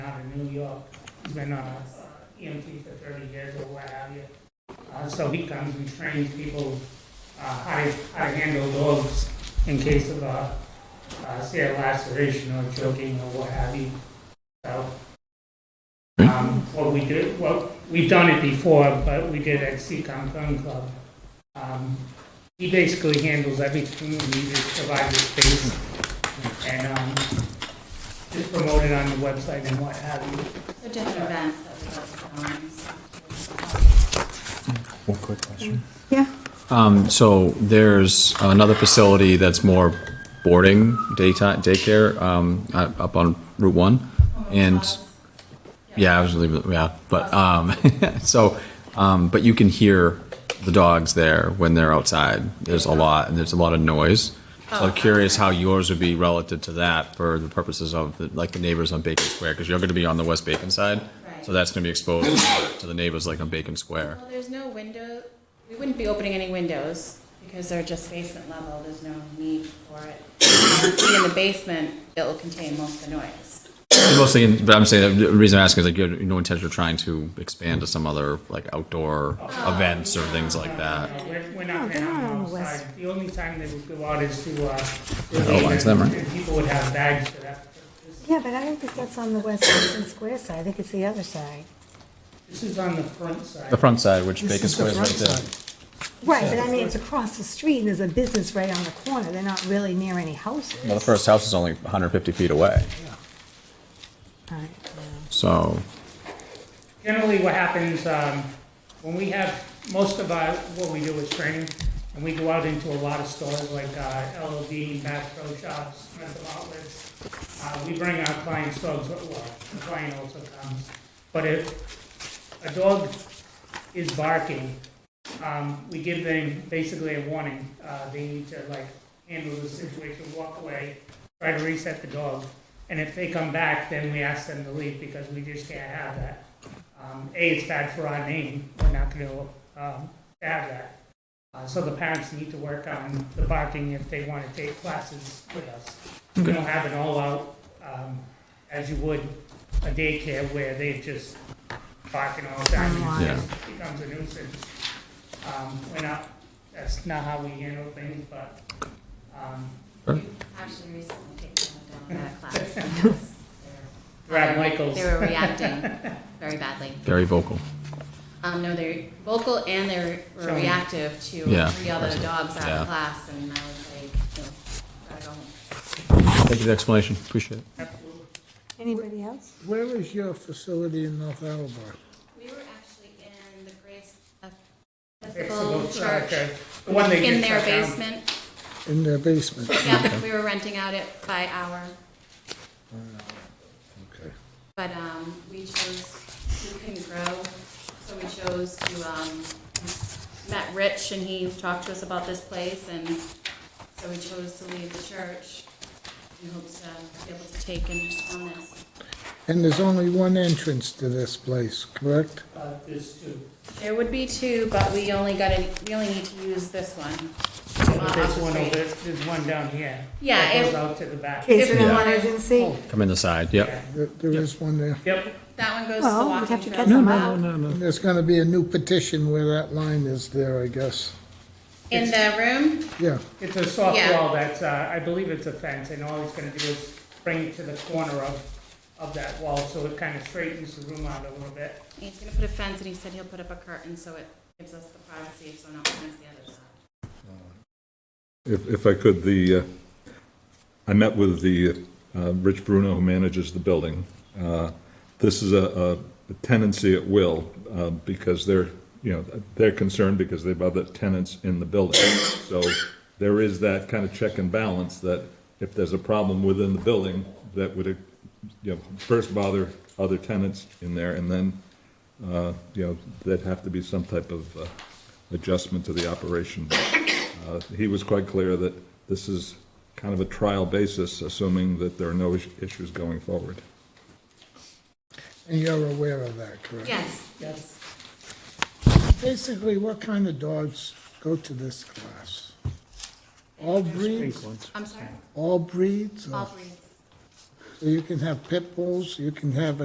in New York. He's been uh, EMT for 30 years or what have you. Uh, So he comes and trains people uh, how to how to handle dogs in case of, uh, uh, say, a laceration or choking or what have you. So um, what we do, well, we've done it before, but we did at Seacom Gun Club. Um, He basically handles everything, and he just provides the space, and um, just promote it on the website and what have you. So different events that we One quick question. Yeah. Um, so there's another facility that's more boarding, daytime, daycare, um, uh, up on Route One. And, yeah, I was leaving, yeah, but, um, so, um, but you can hear the dogs there when they're outside. There's a lot, and there's a lot of noise. So I'm curious how yours would be relative to that for the purposes of, the- like, the neighbors on Bacon Square, because you're gonna be on the West Bacon side. So Right. that's gonna be exposed to the neighbors like on Bacon Square. Well, there's no window, we wouldn't be opening any windows because they're just basement level, there's no need for it. Being In the basement, it will contain most of the noise. Mostly, in- but I'm saying the reason I'm asking is like you have no intention of trying to expand to some other like outdoor events or things like that. No, We're, we're not No, Oh, they're gonna not have on the them west. outside. The only time they would go out is to, uh. Oh, relieve lines them, and- right? and People would have bags for that. This- Yeah, but I don't think that's on the West Hudson Square side, I think it's the other side. This is on the front side. The front side, which Bacon This is the Square is right front there. side. Right, but I mean, it's across the street, and there's a business right on the corner, they're not really near any houses. Well, the first house is only 150 feet away, All right, so Generally, what happens, um, when we have, most of our, what we do is training, and we go out into a lot of stores like, uh, LOD, Bass Pro Shops, Smith Outlets. Uh, we bring our clients dogs, but, well, the client also comes. But if a dog is barking, um, we give them basically a warning. Uh, they need to like handle the situation, walk away, try to reset the dog. And if they come back, then we ask them to leave because we just can't have that. Um, a, it's bad for our name. We're not going to um, have that. Uh, so the parents need to work on the barking if they want to take classes with us. We don't have an all-out um, as you would a daycare where they just barking all the time. It's Yeah. just- Becomes a nuisance. Um, we're not, that's not how we handle things, but, um, We Actually recently taken them down that class. Brad Michaels. They were reacting very badly. very vocal. Um, no, they're vocal and they're were Showing. reactive to Yeah, three other impressive. dogs out Yeah. of class, and I was like, no, gotta go home. Thank you for the explanation. Appreciate it. absolutely. anybody else? Where is your facility in North Attleboro? We were actually in the Grace Episcopal Fixable Church, church. The one they in just their shut down. basement. In their basement? Yeah, we were renting out it by hour, Okay. but, um, we chose, we couldn't grow, so we chose to, um, met Rich and he talked to us about this place, and so we chose to leave the church in hopes to be able to take interest on this. And there's only one entrance to this place, correct? Uh, there's two. There would be two, but we only got to, we only need to use this one. But There's one Street. over, there's one down here. Yeah, That goes it- out to the back. Case If of we an wanted- emergency? Come in the side. Yep. Yeah. There there is one there. Yep, That one goes to the Well, we'd walking have to trail. cut them out. no, And there's gonna be a new petition where that line is there, I guess. In the room, Yeah, it's a soft Yeah. wall that's, uh, I believe it's a fence, and all he's gonna do is bring it to the corner of, of that wall, so it kind of straightens the room out a little bit. he's gonna put a fence, and he said he'll put up a curtain, so it gives us the privacy, so no one sees the other side. If, if I could, the, uh, I met with the, uh, Rich Bruno, who manages the building. Uh, This is a a tenancy at will, uh, because they're, you know, they're concerned because they have other tenants in the building. So there is that kind of check and balance that if there's a problem within the building, that would, you know, first bother other tenants in there, and then, uh, you know, there'd have to be some type of uh, adjustment to the operation. Uh, He was quite clear that this is kind of a trial basis, assuming that there are no is- issues going forward. and you're aware of that, correct? Yes. Yes. Basically, what kind of dogs go to this class? All breeds, I'm sorry, all breeds? or- all breeds. So you can have pit bulls, you can have